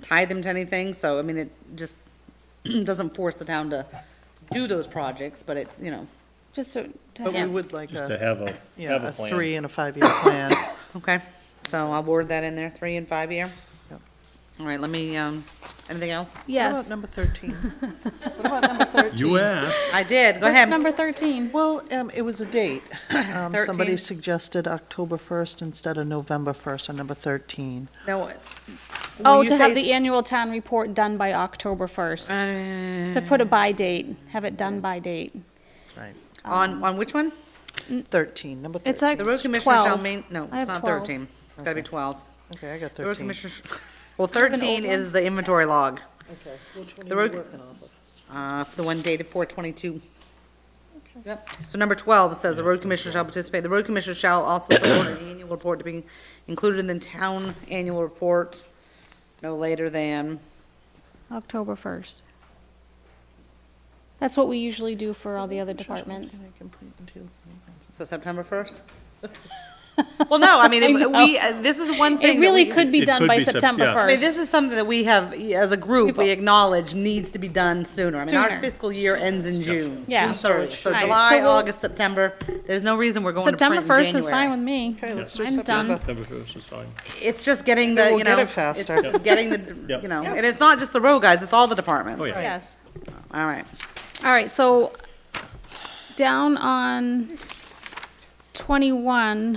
tie them to anything, so, I mean, it just doesn't force the town to do those projects, but it, you know, Just to, to But we have- would like just to a, have a, have yeah, a a plan. three and a five-year plan. okay? So I'll word that in there, three and five year. Yep. All right, let me, um, anything else? What about yes. number 13? What about number 13? You asked, I did, go What's ahead. number 13? Well, um, it was a date. Um, Somebody 13. suggested October 1st instead of November 1st on number 13. No, uh, Oh, when you to have say the s- annual town report done by October 1st. uh, To put a by date, have it done by date. Right. On, on which one? 13, number 13. It's like The road commissioner shall 12. main, no, I it's have not 12. thirteen, it's gotta be twelve. Okay, I got The road 13. commissioner, sh- well, an old thirteen is the inventory log, Okay, which one The are you road- working off of? uh, for the one dated four twenty-two. Yep, so number twelve says the road commissioner shall participate, the road commissioner shall also support an annual report to be included in the town annual report no later than, October 1st. That's what we usually do for all the other departments. so September first? Well, no, I mean, I if know. we, uh, this is one thing It that really we- could be It done could by be Sep- September yeah. I mean, 1st. this is something that we have, as a group, we We've- acknowledge needs to be done sooner. I mean, our Sooner. fiscal year ends in June. Yeah. June 30th. So Right. July, So we'll- August, September, there's no reason we're going to print September in 1st is fine January. with me. Okay, let's do I'm done. September. September first is fine. It's just getting the, we'll you get know, it it's faster. just getting the, Yep. you know, and it's not just the road guys, it's all the Oh, departments. yeah. Yes. All right. All right, so down on I 21,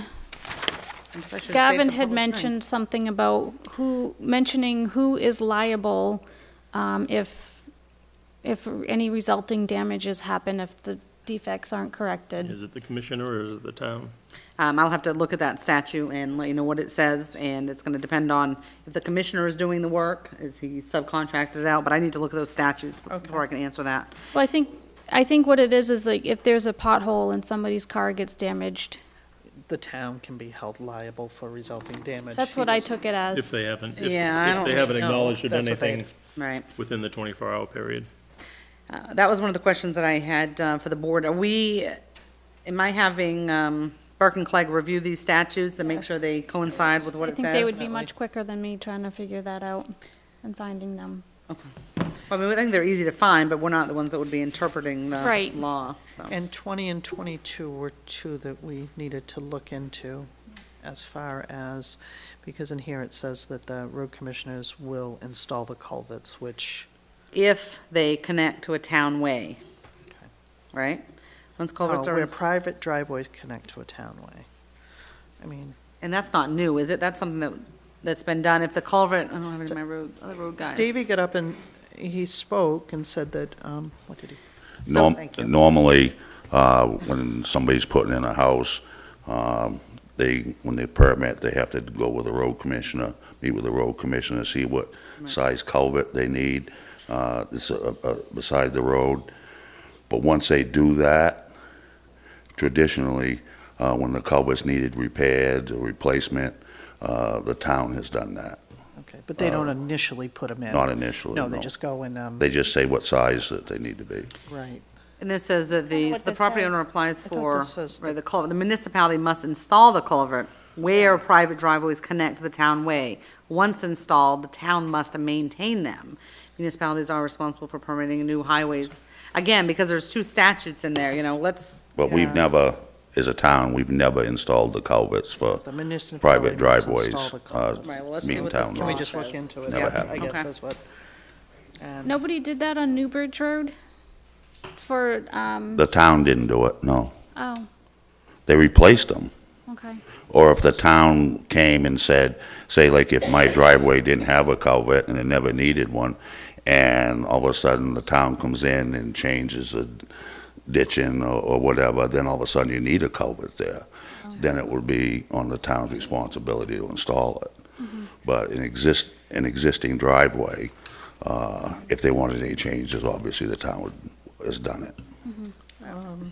guess I should've saved Gavin the had public hearing. mentioned something about who, mentioning who is liable um, if, if any resulting damages happen if the defects aren't corrected. Is it the commissioner or is it the town? Um, I'll have to look at that statute and let you know what it says, and it's gonna depend on if the commissioner is doing the work, is he subcontracted it out, but I need to look at those statutes before I can answer that. Well, I think, I think what it is, is like if there's a pothole and somebody's car gets damaged, The town can be held liable for resulting damage. that's He what I doesn't- took it If as. they haven't, if, Yeah, I if don't they haven't know. acknowledged That's what they- anything Right. within the twenty-four hour period. Uh, That was one of the questions that I had uh, for the board. Are we, am I having um, Burke and Clegg review these statutes and make sure Yes. they coincide with what I it think they would says? be much quicker than me trying to figure that out and finding them. I mean, I think they're easy to find, but we're not the ones that would be interpreting the Right. law, so. And 20 and 22 were two that we needed to look into as far as, because in here it says that the road commissioners will install the culverts, which, If they connect to a town way, right? Once oh, culverts are, where ins- private driveways connect to a townway. I mean, and that's not new, is it? That's something that, that's been done. If the culvert, I don't have any of my road, other road guys. Davey got up and he spoke and said that, um, what did he, So, Norm- thank you. Normally, uh, when somebody's putting in a house, um, they, when they permit, they have to go with the road commissioner, meet with the road commissioner, see what size culvert they need uh, this, uh, uh, beside the road. But once they do that, traditionally, uh, when the culvert's needed repaired or replacement, uh, the town has done that, okay, but they don't initially put them in. Uh, not initially, No, no. they just go and, um, They just say what size that they need to be. right. And this says that the, what the this property says. owner applies I thought for, this says right, that- the culvert, the municipality must install the culvert where private driveways connect to the town way. Once installed, the town must maintain them. Municipalities are responsible for permitting new highways. Again, because there's two statutes in there, you know, let's, But Yeah. we've never, as a town, we've never installed the culverts for The municipality private must install driveways. the uh, culverts. Right, well, let's see meeting what this town Can we law roads. just look says. into it? Never That's- I happened. guess Okay. that's what. and- Nobody did that on Newbridge Road for, um, The town didn't do it, no. oh, They replaced them. okay. Or if the town came and said, say like if my driveway didn't have a culvert and it never needed one, and all of a sudden the town comes in and changes the ditching or, or whatever, then all of a sudden you need a culvert there. Then it would be on the town's responsibility to install it. But an exist, an existing driveway, uh, if they wanted any changes, obviously the town would, has done it.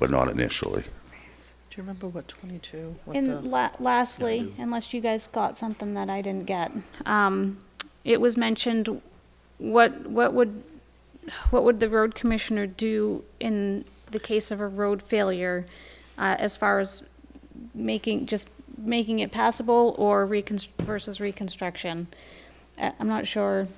But not initially. um, Do you remember what 22, what And the, la- lastly, unless you guys got something that I didn't get, um, it was mentioned, what, what would, what would the road commissioner do in the case of a road failure? Uh, as far as making, just making it passable or reconst- versus reconstruction? Uh, I'm not sure